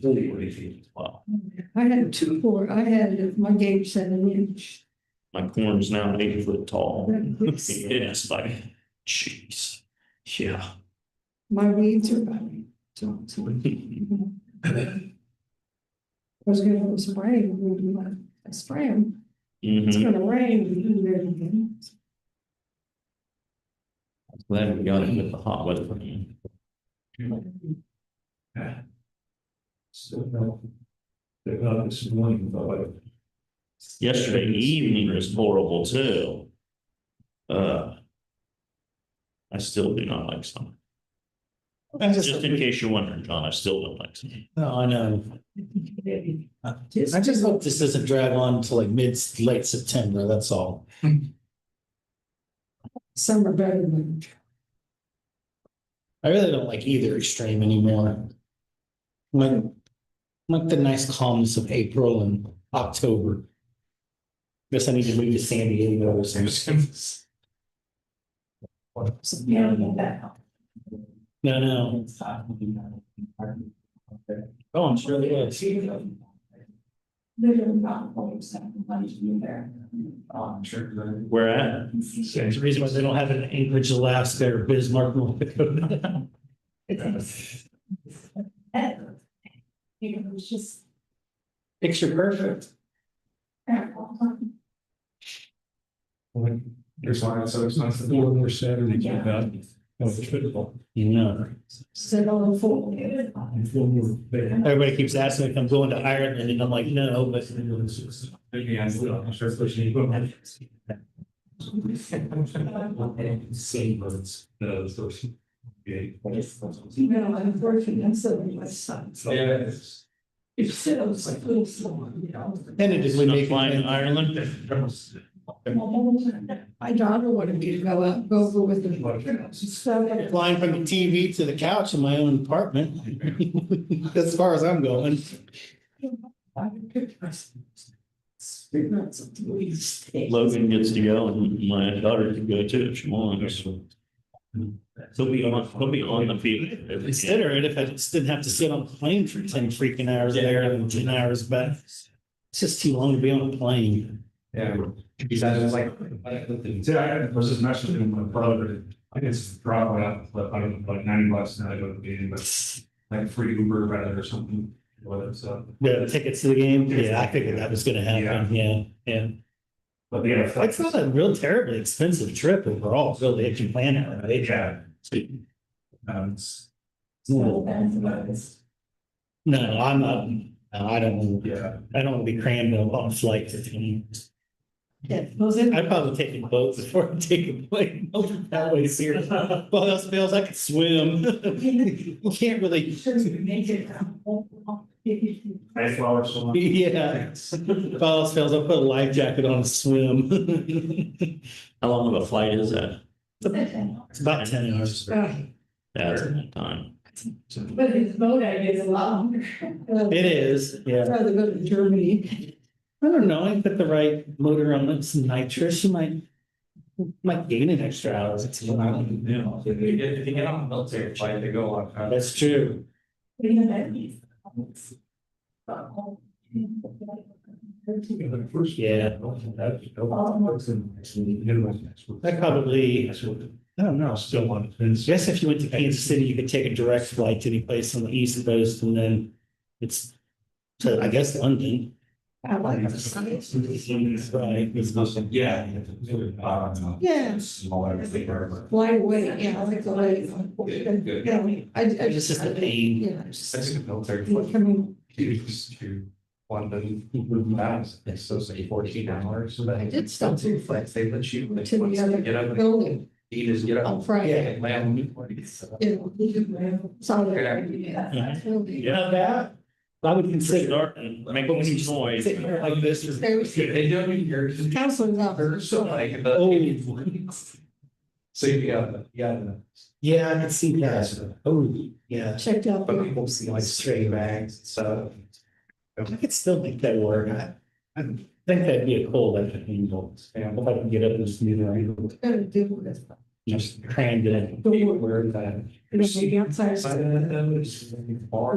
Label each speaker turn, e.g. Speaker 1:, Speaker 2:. Speaker 1: Wow,
Speaker 2: I had two four, I had, my game's seven inch.
Speaker 1: my corn's now eight foot tall.
Speaker 2: It's-
Speaker 1: It's like, jeez, yeah.
Speaker 2: My weeds are running. So, so,
Speaker 1: Mm-hmm.
Speaker 2: I was gonna go spray, we do like, I spray them, it's
Speaker 1: Mhm.
Speaker 2: gonna rain. they're gonna-
Speaker 1: Glad we got it with the hot weather.
Speaker 3: Still no. They're not this morning, but.
Speaker 1: Yesterday evening was horrible too. Uh. I still do not like summer. Just in case you're wondering, John, I still don't like summer.
Speaker 4: No, I know. I just hope this doesn't drag on to like mid, late September, that's all.
Speaker 2: Some are better than.
Speaker 4: I really don't like either extreme anymore. Like, like the nice calmness of April and October. Guess I need to move to San Diego or something. No, no. Oh, I'm sure they is.
Speaker 3: I'm sure that.
Speaker 1: Where at?
Speaker 4: There's a reason why they don't have it in Anchorage, Alaska, or Bismarck, North Dakota.
Speaker 2: You know, it's just.
Speaker 4: Picture perfect.
Speaker 3: There's why it's so expensive. Four more Saturday.
Speaker 2: Yeah.
Speaker 3: Oh,
Speaker 4: No.
Speaker 2: Sit on the floor.
Speaker 4: Everybody keeps asking if I'm going to Ireland, and I'm like, no, but.
Speaker 3: Maybe I still, I'm sure. especially- Same words. No, so she-
Speaker 2: You
Speaker 3: Yeah.
Speaker 2: know, unfortunately, I'm so my son. If you sit on the floor, so, you know.
Speaker 4: Tentatively
Speaker 1: Not
Speaker 4: making.
Speaker 1: flying to Ireland?
Speaker 2: My daughter wanted me to go out, go over with her. She said,
Speaker 4: Flying from the TV to the couch in my own apartment. As far as I'm going.
Speaker 2: I picked my. Three months of the least.
Speaker 1: Logan gets to go and my daughter can go too if she wants. They'll be on, they'll be on the field.
Speaker 4: Consider it if I just didn't have to sit on a plane for ten freaking hours there and ten hours back. It's just too long to be on a plane.
Speaker 3: Yeah. Because I was like. See, I was just messaging with my brother, I just drop it out, but I don't, like ninety bucks and I go to the game, but like free Uber rather or something, whatever, so.
Speaker 4: The tickets to the game, yeah, I figured that was gonna happen, yeah, yeah.
Speaker 3: But yeah. it's like-
Speaker 4: It's not a real terribly expensive trip overall, really, if you plan it right.
Speaker 3: Yeah. Um, it's-
Speaker 2: So that's about it.
Speaker 4: No, I'm not, no, I don't, wanna-
Speaker 3: yeah.
Speaker 4: I don't want to be crammed on on flights.
Speaker 2: Yeah, those are-
Speaker 4: I'd probably take a boat before I take a plane over that way, seriously. Well, else fails, I could swim. You can't really,
Speaker 2: Should we make it? Well,
Speaker 3: Nice flowers. so much.
Speaker 4: yeah. If all else fails, I'll put a life jacket on and swim.
Speaker 1: How long of a flight is that?
Speaker 4: It's about ten hours.
Speaker 1: That's a long time.
Speaker 5: But his boat idea is a lot longer.
Speaker 4: It is, yeah.
Speaker 2: I'd rather go to Germany.
Speaker 4: I don't know, I put the right motor on, it, some nitrous, you might, might gain an extra hour. or two. I don't know.
Speaker 3: If you get, if you get on a military flight, they go on. uh,
Speaker 4: That's true. Yeah. That probably, I don't know.
Speaker 3: Still on.
Speaker 4: I guess if you went to Kansas City, you could take a direct flight to any place on the east coast and then it's to, I guess, London.
Speaker 2: I like the size.
Speaker 4: Right. It's nothing.
Speaker 3: Yeah.
Speaker 2: Yeah.
Speaker 3: Smaller, bigger.
Speaker 2: Fly away, yeah, I like the light.
Speaker 3: Good, good.
Speaker 2: Yeah, I, I
Speaker 4: It's
Speaker 2: just.
Speaker 4: just a pain.
Speaker 2: Yeah, I just.
Speaker 3: That's a military
Speaker 2: I
Speaker 3: flight.
Speaker 2: mean,
Speaker 3: Used to London, miles, it's so say fourteen hours, so that.
Speaker 2: I did stop to fly.
Speaker 3: They let you.
Speaker 2: To the other
Speaker 3: Get up, and
Speaker 2: building
Speaker 3: eat is get
Speaker 2: on
Speaker 3: up.
Speaker 2: Friday,
Speaker 3: and land. It's
Speaker 2: you know, we could have solid. building.
Speaker 1: Yeah.
Speaker 4: Not bad. I would consider.
Speaker 1: Start and make some noise.
Speaker 4: Sitting here like this is.
Speaker 2: There was
Speaker 3: They don't even hear. you.
Speaker 2: counselors out there.
Speaker 3: So like. the-
Speaker 2: Oh.
Speaker 3: So you got, yeah.
Speaker 4: Yeah, I can see that. Oh, yeah.
Speaker 2: Checked out.
Speaker 3: But
Speaker 2: the-
Speaker 3: people see like stray bags, so.
Speaker 4: I could still make that work. I, I think that'd be a cool, like, angle. If I can get up and smooth it.
Speaker 2: Gotta do this.
Speaker 6: Just crammed in.
Speaker 4: The wood.
Speaker 6: Where that.
Speaker 4: Maybe outside. uh,
Speaker 3: Side of that, though, is far